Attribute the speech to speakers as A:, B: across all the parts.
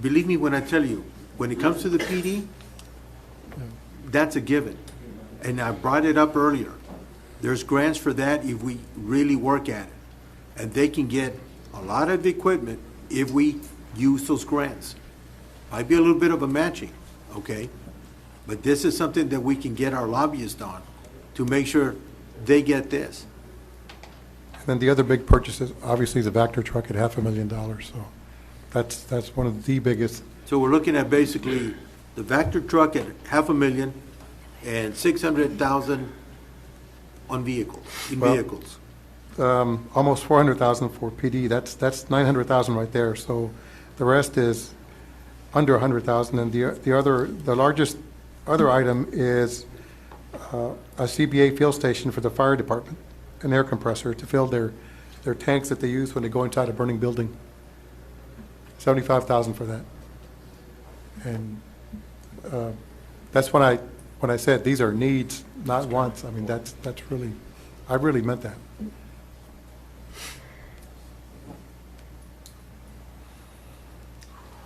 A: believe me when I tell you, when it comes to the PD, that's a given. And I brought it up earlier. There's grants for that if we really work at it. And they can get a lot of equipment if we use those grants. Might be a little bit of a matching, okay? But this is something that we can get our lobbyists on to make sure they get this.
B: And then the other big purchase is obviously the Vector truck at half a million dollars, so that's, that's one of the biggest.
A: So we're looking at basically the Vector truck at half a million and six hundred thousand on vehicles, in
B: Well-
A: vehicles.
B: um, almost 400,000 for PD, that's, that's 900,000 right there. So the rest is under 100,000. And the, the other, the largest other item is uh, a CBA field station for the fire department, an air compressor to fill their, their tanks that they use when they go inside a burning building. 75,000 for that. And uh, that's when I, when I said, these are needs, not wants. I mean, that's, that's really, I really meant that.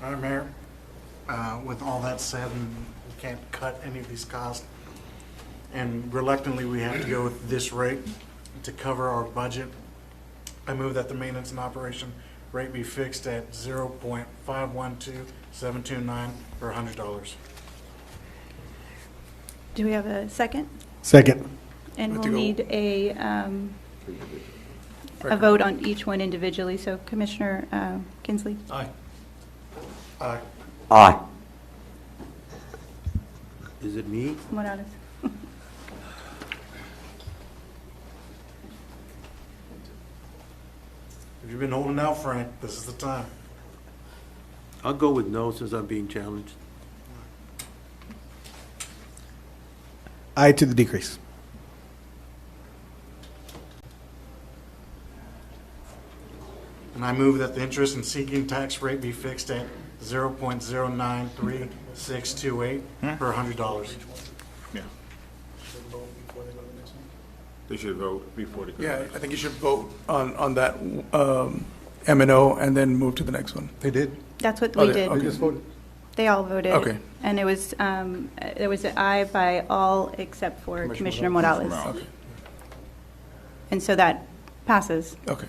C: Madam Mayor, uh, with all that said, and we can't cut any of these costs, and reluctantly, we have to go with this rate to cover our budget. I move that the maintenance and operation rate be fixed at zero point five one two seven two nine or hundred dollars.
D: Do we have a second?
E: Second.
D: And
C: Have
D: we'll
C: to go-
D: need a, um, a vote on each one individually. So Commissioner uh, Kinsley?
C: Aye. Aye.
E: Aye.
A: Is it me?
D: Morales?
C: If you've been holding out, Frank, this is the time.
A: I'll go with no since I'm being challenged.
E: Aye to the decrease.
C: And I move that the interest and seeking tax rate be fixed at zero point zero nine three six two eight per hundred dollars.
F: Yeah. They should vote before they go.
G: Yeah, I think you should vote on, on that um, M and O and then move to the next one.
B: They did.
D: That's what
G: Oh,
D: we
G: yeah,
D: did.
G: okay.
B: They just voted.
D: They all voted.
G: Okay.
D: And it was, um, uh, there was an aye by all except for Commissioner
B: Commissioner
D: Morales.
F: Morales.
G: Okay.
D: And so that passes.
G: Okay.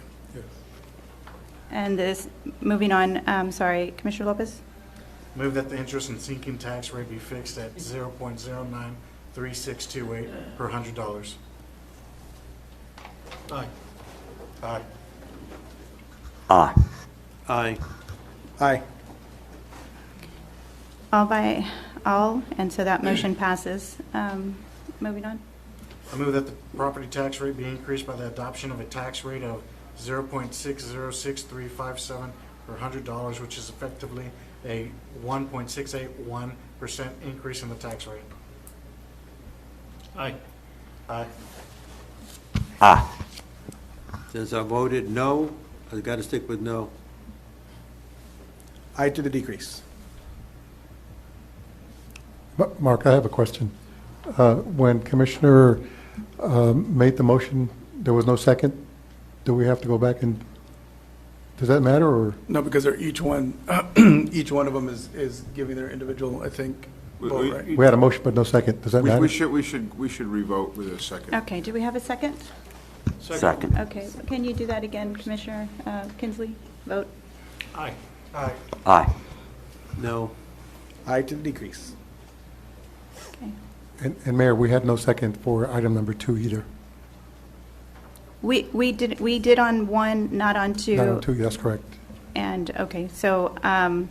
D: And this, moving on, um, sorry, Commissioner Lopez?
C: Move that the interest and sinking tax rate be fixed at zero point zero nine three six two eight per hundred dollars. Aye. Aye.
E: Aye.
A: Aye.
E: Aye.
D: All by all, and so that motion passes. Um, Moving on.
C: I move that the property tax rate be increased by the adoption of a tax rate of zero point six zero six three five seven per hundred dollars, which is effectively a one point six eight one percent increase in the tax rate. Aye. Aye.
E: Aye.
A: Since I voted no, I've got to stick with no.
E: Aye to the decrease.
B: Ma- Mark, I have a question. Uh, When Commissioner um, made the motion, there was no second? Do we have to go back and, does that matter, or?
G: No, because they're each one, each one of them is, is giving their individual, I think,
F: We-
G: vote,
F: we-
G: right?
B: We had a motion but no second, does that
F: We-
B: matter?
F: We should, we should, we should revote with a second.
D: Okay, do we have a second?
E: Second.
D: Okay, can you do that again, Commissioner uh, Kinsley? Vote.
C: Aye. Aye.
E: Aye.
A: No.
E: Aye to the decrease.
D: Okay.
B: And and Mayor, we had no second for item number two either.
D: We, we did, we did on one, not on two.
B: Not on two, that's correct.
D: And, okay, so um,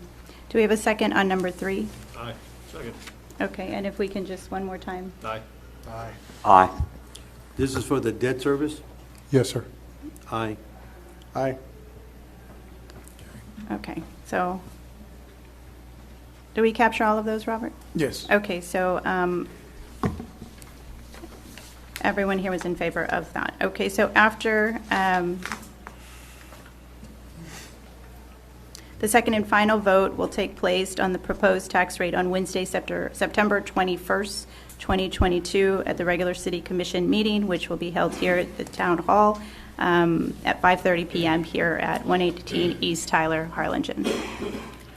D: do we have a second on number three?
C: Aye. Second.
D: Okay, and if we can just one more time.
C: Aye. Aye.
E: Aye.
A: This is for the debt service?
B: Yes, sir.
A: Aye.
E: Aye.
D: Okay, so, do we capture all of those, Robert?
G: Yes.
D: Okay, so um, everyone here was in favor of that. Okay, so after um, the second and final vote will take place on the proposed tax rate on Wednesday, Septer- September 21st, 2022, at the regular city commission meeting, which will be held here at the town hall um, at 5:30 PM here at 118 East Tyler, Harlingen.